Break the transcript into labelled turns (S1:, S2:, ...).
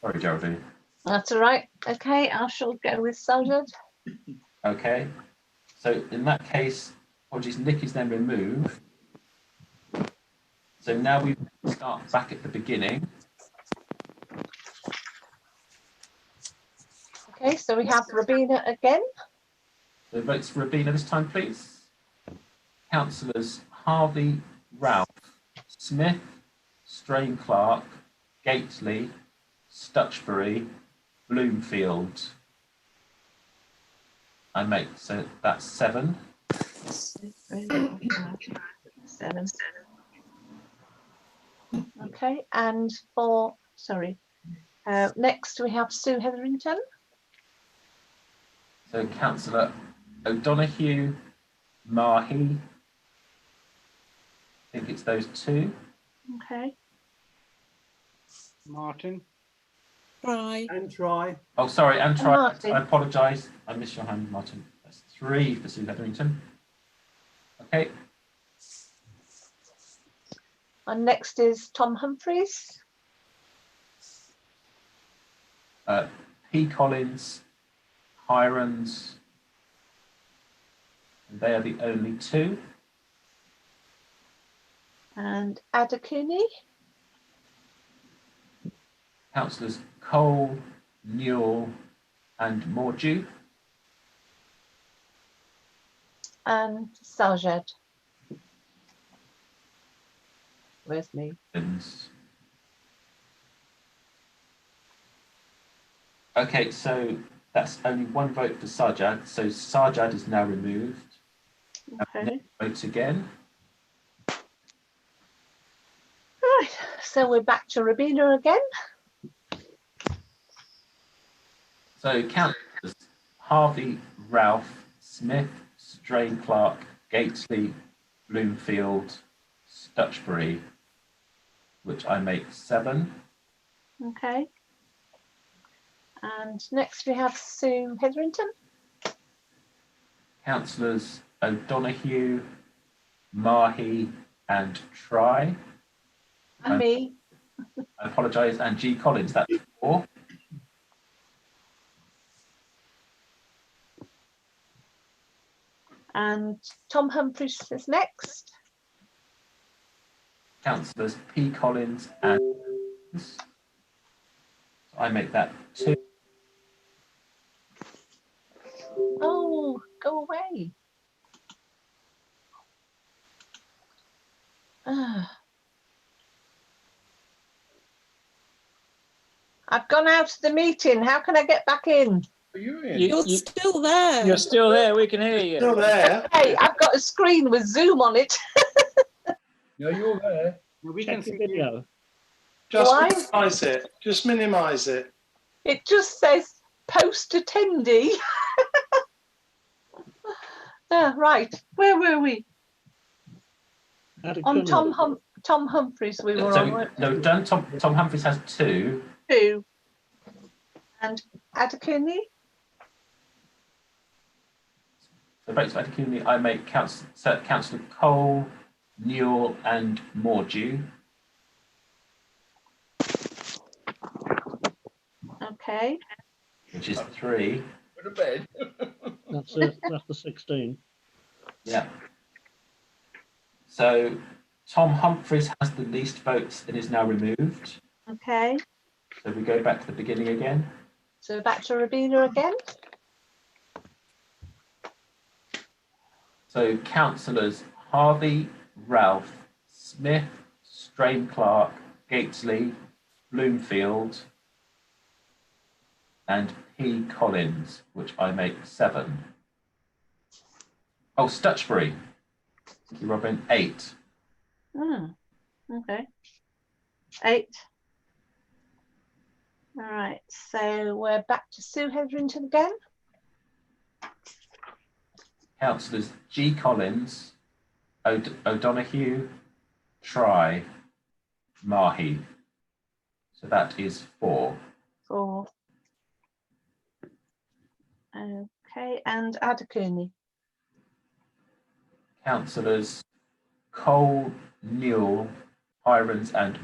S1: Sorry, Geraldine.
S2: That's all right. Okay, I shall go with soldered.
S1: Okay. So in that case, apologies, Nick is then removed. So now we start back at the beginning.
S2: Okay, so we have Rabina again.
S1: The votes for Rabina this time, please. Councillors Harvey, Ralph, Smith, Strain Clark, Gately, Stutchbury, Bloomfield. I make, so that's seven.
S2: Seven. Okay, and for, sorry. Uh, next, we have Sue Hetherington.
S1: So councillor O'Donoghue, Mahi. I think it's those two.
S2: Okay,
S3: Martin
S4: Try.
S3: and try.
S1: Oh, sorry, and try,
S2: Martin.
S1: I apologise. I missed your hand, Martin. That's three for Sue Hetherington. Okay,
S2: and next is Tom Humphries.
S1: uh, P. Collins, Hirons. And they are the only two.
S2: And Ada Cooney.
S1: Councillors Cole, Newell, and Mordew.
S2: and Sajed. Where's me?
S1: happens. Okay, so that's only one vote for Sajad, so Sajad is now removed.
S2: Okay.
S1: Votes again.
S2: Right, so we're back to Rabina again.
S1: So councillors Harvey, Ralph, Smith, Strain Clark, Gatesley, Bloomfield, Stutchbury, which I make seven.
S2: Okay. And next we have Sue Hetherington.
S1: Councillors O'Donoghue, Mahi, and Try.
S2: And
S1: Um,
S2: me.
S1: I apologise, and G Collins, that's four.
S2: And Tom Humphries is next.
S1: councillors P Collins and Collins. So I make that two.
S2: Oh, go away. Ah. I've gone out of the meeting. How can I get back in?
S4: You're
S5: You, you,
S4: still there.
S5: you're still there. We can hear you.
S3: Still there.
S2: Hey, I've got a screen with Zoom on it.
S6: No, you're there.
S3: We can
S5: Check
S3: see
S5: the
S3: you.
S5: video.
S2: Why?
S6: Just minimise it. Just minimise it.
S2: It just says post attendee. Ah, right, where were we?
S5: Had a
S2: On
S5: good
S2: Tom
S5: one.
S2: Hum- Tom Humphreys we were
S1: So
S2: on,
S1: we-
S2: weren't
S1: no, done. Tom, Tom Humphries has two.
S2: we? Two. And Adekuni?
S1: So votes for Adekuni, I make council, so councillor Cole, Newell, and Mordew.
S2: Okay,
S1: Which is three.
S6: Go to bed.
S5: That's it. That's the 16.
S1: Yeah. So Tom Humphries has the least votes and is now removed.
S2: okay.
S1: So we go back to the beginning again.
S2: So back to Rabina again.
S1: So councillors Harvey, Ralph, Smith, Strain Clark, Gatesley, Bloomfield, and P. Collins, which I make seven. Oh, Stutchbury. Thank you, Robin, eight.
S2: Hmm, okay. Eight. All right, so we're back to Sue Hetherington again.
S1: Councillors G. Collins, O'D- O'Donoghue, Try, Mahi. So that is four.
S2: Four. Okay, and Adekuni?
S1: councillors Cole, Newell, Hirons and